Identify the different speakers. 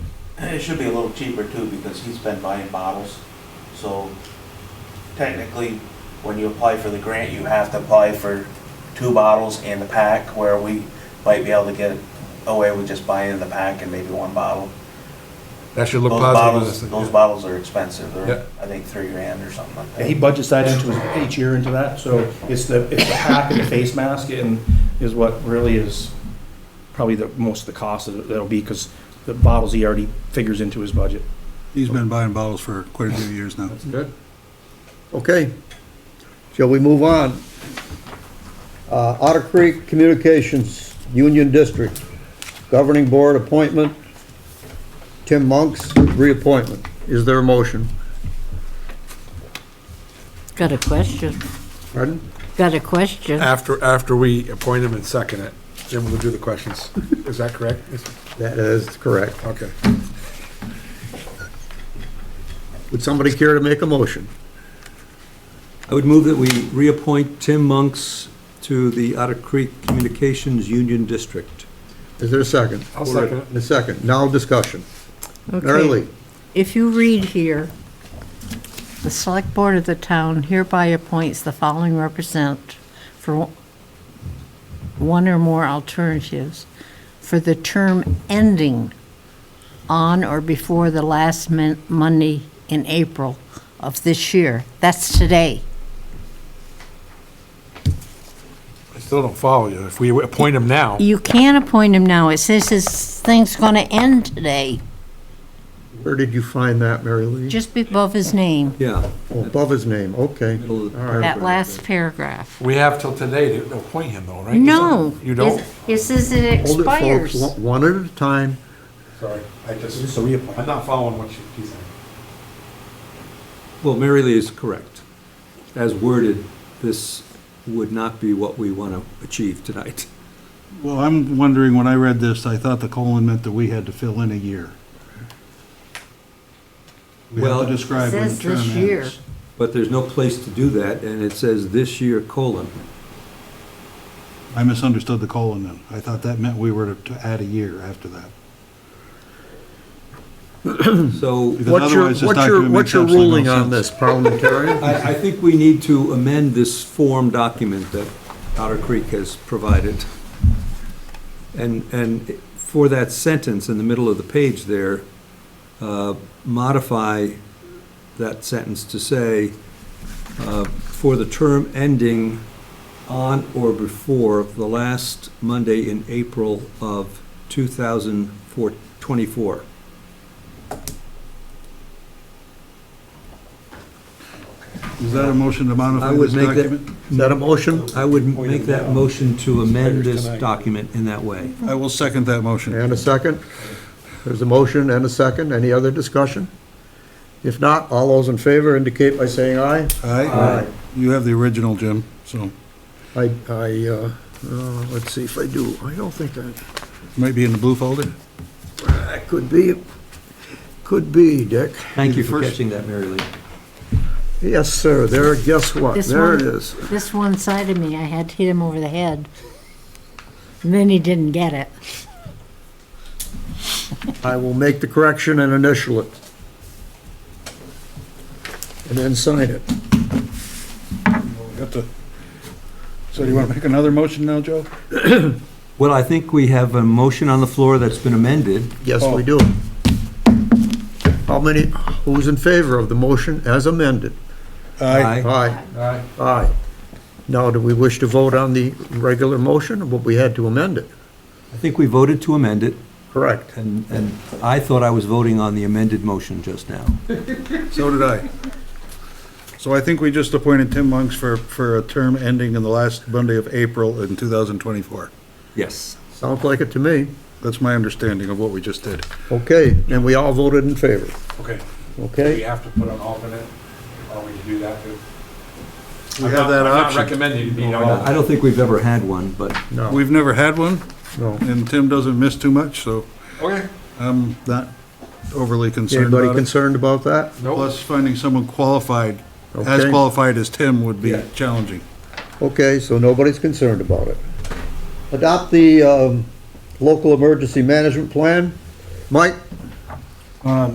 Speaker 1: And it should be a little cheaper too, because he's been buying bottles. So technically, when you apply for the grant, you have to apply for two bottles and a pack, where we might be able to get away with just buying the pack and maybe one bottle.
Speaker 2: That should look
Speaker 1: Those
Speaker 2: positive.
Speaker 1: bottles,
Speaker 2: isn't it?
Speaker 1: those bottles are expensive,
Speaker 2: Yeah.
Speaker 1: they're, I think, three grand or something like
Speaker 3: And he
Speaker 1: that.
Speaker 3: budgets that into his, each year into that, so it's the, it's the pack and the face mask and is what really is probably the, most of the cost of it- that'll be, because the bottles he already figures into his budget.
Speaker 4: He's been buying bottles for quite a few years now.
Speaker 2: That's good.
Speaker 5: Okay, shall we move on? Uh, Otter Creek Communications, Union District, Governing Board appointment, Tim Monk's reappointment. Is there a motion?
Speaker 6: Got a question.
Speaker 5: Pardon?
Speaker 6: Got a question.
Speaker 2: After, after we appoint him and second it, then we'll do the questions. Is that correct?
Speaker 5: That is correct.
Speaker 2: Okay.
Speaker 5: Would somebody care to make a motion?
Speaker 4: I would move that we reappoint Tim Monks to the Otter Creek Communications Union District.
Speaker 5: Is there a second?
Speaker 2: I'll second it.
Speaker 5: A second, now discussion.
Speaker 6: Okay.
Speaker 5: Early,
Speaker 6: If you read here, the select board of the town hereby appoints the following represent for one or more alternatives for the term ending on or before the last mon- Monday in April of this year. That's today.
Speaker 2: I still don't follow you. If we appoint him now,
Speaker 6: You can't appoint him now. It says his thing's going to end today,
Speaker 5: where did you find that, Mary Lee?
Speaker 6: just above his name,
Speaker 4: Yeah.
Speaker 5: Oh, Above his name, okay.
Speaker 4: Middle of the
Speaker 5: All right.
Speaker 6: that last paragraph.
Speaker 2: we have till today to appoint him though, right?
Speaker 6: No.
Speaker 2: You don't?
Speaker 6: It- It says it
Speaker 5: Hold it, folks,
Speaker 6: expires.
Speaker 5: one one at a time.
Speaker 2: Sorry, I just,
Speaker 3: Just a reappointment.
Speaker 2: I'm not following what you- he's saying.
Speaker 4: Well, Mary Lee is correct. As worded, this would not be what we want to achieve tonight.
Speaker 7: Well, I'm wondering, when I read this, I thought the colon meant that we had to fill in a year. We have
Speaker 4: Well-
Speaker 7: to describe when the
Speaker 6: Says
Speaker 7: term
Speaker 6: this year.
Speaker 7: ends.
Speaker 4: But there's no place to do that, and it says this year, colon.
Speaker 7: I misunderstood the colon then. I thought that meant we were to to add a year after that.
Speaker 4: So
Speaker 7: Because
Speaker 5: What's your,
Speaker 7: otherwise this
Speaker 5: what's your,
Speaker 7: document
Speaker 5: what's
Speaker 7: makes
Speaker 5: your
Speaker 7: absolutely no
Speaker 5: ruling on
Speaker 7: sense.
Speaker 5: this, parliamentarian?
Speaker 4: I, I think we need to amend this form document that Otter Creek has provided. And, and for that sentence in the middle of the page there, uh, modify that sentence to say, uh, for the term ending on or before the last Monday in April of 2024.
Speaker 7: Is that a motion to
Speaker 4: I
Speaker 7: modify
Speaker 4: would
Speaker 7: this
Speaker 4: make that,
Speaker 7: document?
Speaker 5: Is that a motion?
Speaker 4: I would make that motion to amend this document in that way.
Speaker 7: I will second that motion.
Speaker 5: And a second? There's a motion and a second. Any other discussion? If not, all those in favor indicate by saying aye.
Speaker 7: Aye? You have the original, Jim, so
Speaker 5: I, I, uh, uh, let's see if I do. I don't think I,
Speaker 7: it might be in the blue folder.
Speaker 5: that could be, could be, Dick.
Speaker 4: Thank you for catching that, Mary Lee.
Speaker 5: Yes, sir, there, guess what?
Speaker 6: This
Speaker 5: There it
Speaker 6: one?
Speaker 5: is.
Speaker 6: This one side of me, I had to hit him over the head. And then he didn't get it.
Speaker 5: I will make the correction and initial it. And then sign it.
Speaker 7: We have to- So do you want to make another motion now, Joe?
Speaker 4: Well, I think we have a motion on the floor that's been amended.
Speaker 5: Yes,
Speaker 6: Oh.
Speaker 5: we do. How many, who's in favor of the motion as amended? Aye.
Speaker 2: Aye.
Speaker 5: Aye. Now, do we wish to vote on the regular motion, but we had to amend it?
Speaker 4: I think we voted to amend it,
Speaker 5: Correct.
Speaker 4: and, and I thought I was voting on the amended motion just now.
Speaker 7: So did I. So I think we just appointed Tim Monks for, for a term ending in the last Monday of April in 2024.
Speaker 4: Yes.
Speaker 5: Sounds like it to me.
Speaker 7: That's my understanding of what we just did.
Speaker 5: Okay, and we all voted in favor,
Speaker 2: Okay, do we
Speaker 5: okay?
Speaker 2: have to put an alternate? Are we to do that too?
Speaker 7: We have that
Speaker 2: I'm not
Speaker 7: option.
Speaker 2: recommending you be an alternate.
Speaker 4: I don't think we've ever had one, but
Speaker 5: No,
Speaker 7: We've never had one,
Speaker 5: Oh. no.
Speaker 7: and Tim doesn't miss too much, so
Speaker 2: Okay,
Speaker 7: I'm not overly concerned
Speaker 5: Anybody
Speaker 7: about it.
Speaker 5: concerned about that?
Speaker 2: nope.
Speaker 7: Plus, finding someone qualified, as
Speaker 5: Okay.
Speaker 7: qualified as Tim would be
Speaker 4: Yeah.
Speaker 7: challenging.
Speaker 5: Okay, so nobody's concerned about it. Adopt the um, local emergency management plan. Mike,
Speaker 3: Uh,